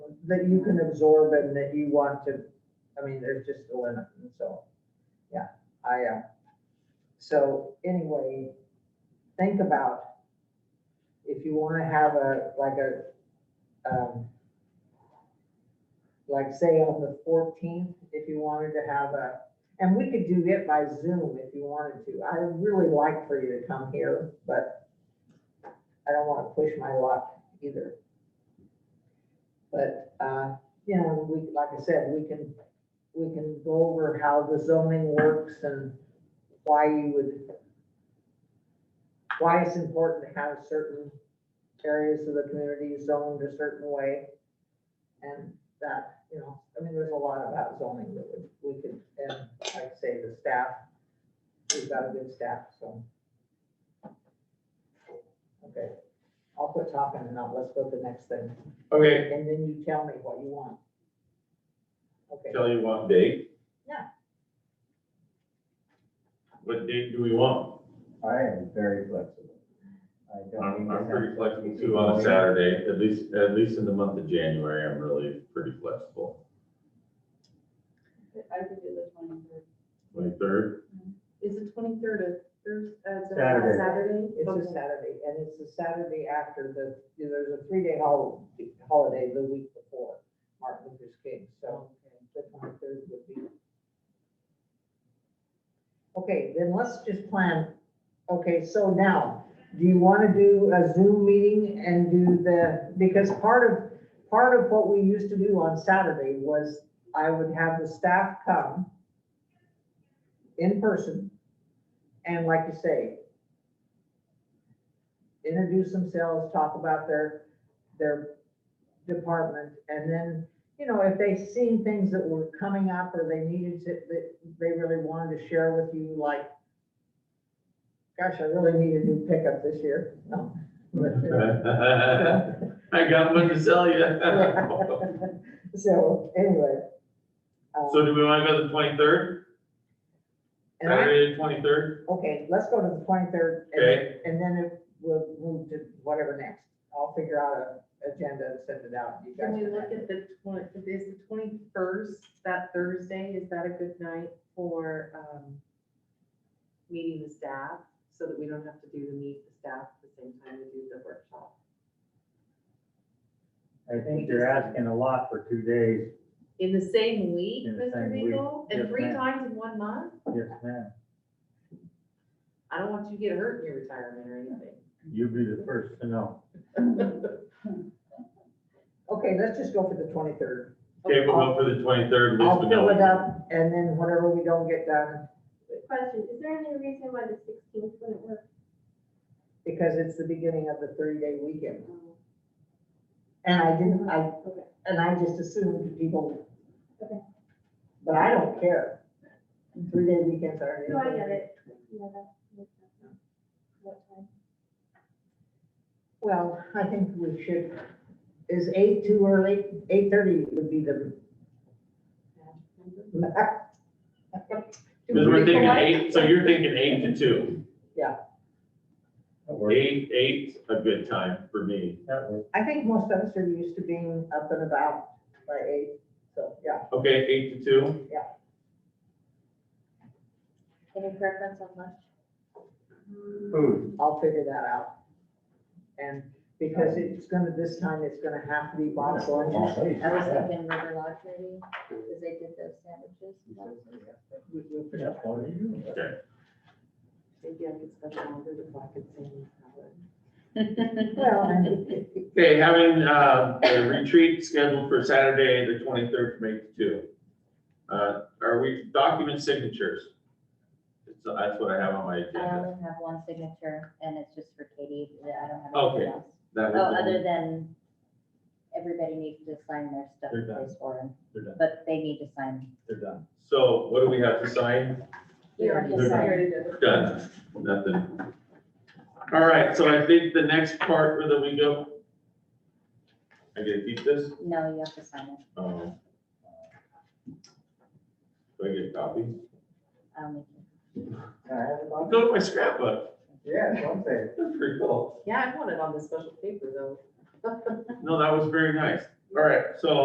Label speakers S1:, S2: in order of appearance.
S1: that you can absorb and that you want to, I mean, there's just a limit, and so, yeah, I, uh, so anyway, think about if you wanna have a, like a, um, like say on the fourteenth, if you wanted to have a, and we could do it by Zoom if you wanted to. I'd really like for you to come here, but I don't wanna push my luck either. But, uh, you know, we, like I said, we can, we can go over how the zoning works and why you would, why it's important to have certain areas of the community zoned a certain way. And that, you know, I mean, there's a lot about zoning that we, we could, and like I say, the staff, we've got a good staff, so. Okay, I'll quit talking and now let's go to the next thing.
S2: Okay,
S1: And then you tell me what you want. Okay,
S2: tell you what date.
S1: Yeah.
S2: What date do we want?
S3: I am very flexible. I don't
S2: I'm,
S3: need to
S2: I'm pretty
S3: have-
S2: flexible too on a Saturday, at least, at least in the month of January, I'm really pretty flexible.
S4: I could do the twenty-third.
S2: Twenty-third,
S4: Is the twenty-third a Thursday,
S3: Saturday.
S4: Saturday?
S1: it's
S4: Okay.
S1: a Saturday, and it's the Saturday after the, there's a three-day hol- holiday the week before Martin Luther King, so the twenty-third would be. Okay, then let's just plan, okay, so now, do you want to do a Zoom meeting and do the, because part of, part of what we used to do on Saturday was I would have the staff come in person, and like you say, introduce themselves, talk about their, their department, and then, you know, if they seen things that were coming up or they needed to, that they really wanted to share with you, like, gosh, I really need a new pickup this year, no. but-
S2: I got one to sell you.
S1: So, anyway. um,
S2: So do we want to go the twenty-third,
S1: And I,
S2: Saturday, twenty-third?
S1: okay, let's go to the twenty-third.
S2: Okay,
S1: And then if we'll move to whatever next. I'll figure out a agenda and send it out. You guys
S4: Can we
S1: can-
S4: look at the twenty, is the twenty-first, that Thursday, is that a good night for, um, meeting the staff? So that we don't have to do the meet the staff at the same time we do the workshop?
S3: I think you're asking a lot for two days.
S4: In the same week,
S3: In the
S4: Mr.
S3: same week.
S4: Beagle? And
S3: Yes,
S4: three
S3: ma'am.
S4: times in one month?
S3: Yes, ma'am.
S4: I don't want you to get hurt in your retirement or anything.
S3: You'll be the first to know.
S1: Okay, let's just go for the twenty-third.
S2: okay, we'll go for the twenty-third, at least
S1: I'll
S2: we
S1: fill it
S2: know.
S1: up and then whatever we don't get done,
S5: Question, is there any reason why the sixteenth wouldn't work?
S1: because it's the beginning of the thirty-day weekend. And I didn't, I,
S5: Okay.
S1: and I just assumed people.
S5: Okay.
S1: But I don't care. Three-day weekends are.
S5: No, I get it. Yeah, that makes sense. What time?
S1: Well, I think we should, is eight too early? Eight-thirty would be the.
S2: Because we're thinking eight, so you're thinking eight to two.
S3: That works.
S2: Eight, eight's a good time for me.
S3: That works.
S1: I think most of us are used to being up and about by eight, so, yeah.
S2: Okay, eight to two,
S5: Any preference on lunch?
S3: Food.
S1: I'll figure that out. And because it's gonna, this time it's gonna have to be box lunches.
S3: Oh,
S5: I was thinking River Lodge maybe, because they did those sandwiches.
S1: We- we-
S3: Yeah, what are you doing?
S4: Maybe I could special order the black and salad.
S1: Well, and
S2: Okay, having, uh, a retreat scheduled for Saturday, the twenty-third from eight to two. Uh, are we, document signatures? It's- That's what I have on my
S6: I
S2: agenda.
S6: only have one signature and it's just for Katie. I don't have
S2: Okay.
S6: anything else.
S2: That
S6: Oh,
S2: was
S6: other
S2: the-
S6: than everybody needs to sign their stuff
S3: They're done.
S6: place for them,
S3: They're done,
S6: but they need to sign.
S3: they're done.
S2: So what do we have to sign?
S4: We already we already did it.
S2: Done, nothing. All right, so I think the next part where that we go. I get to keep this?
S6: No, you have to sign it.
S2: Um, Do I get a copy?
S6: I'll make
S2: Go to my scrapbook,
S3: Yeah, one thing.
S2: that's pretty cool.
S4: Yeah, I want it on the special paper though.
S2: No, that was very nice. All right, so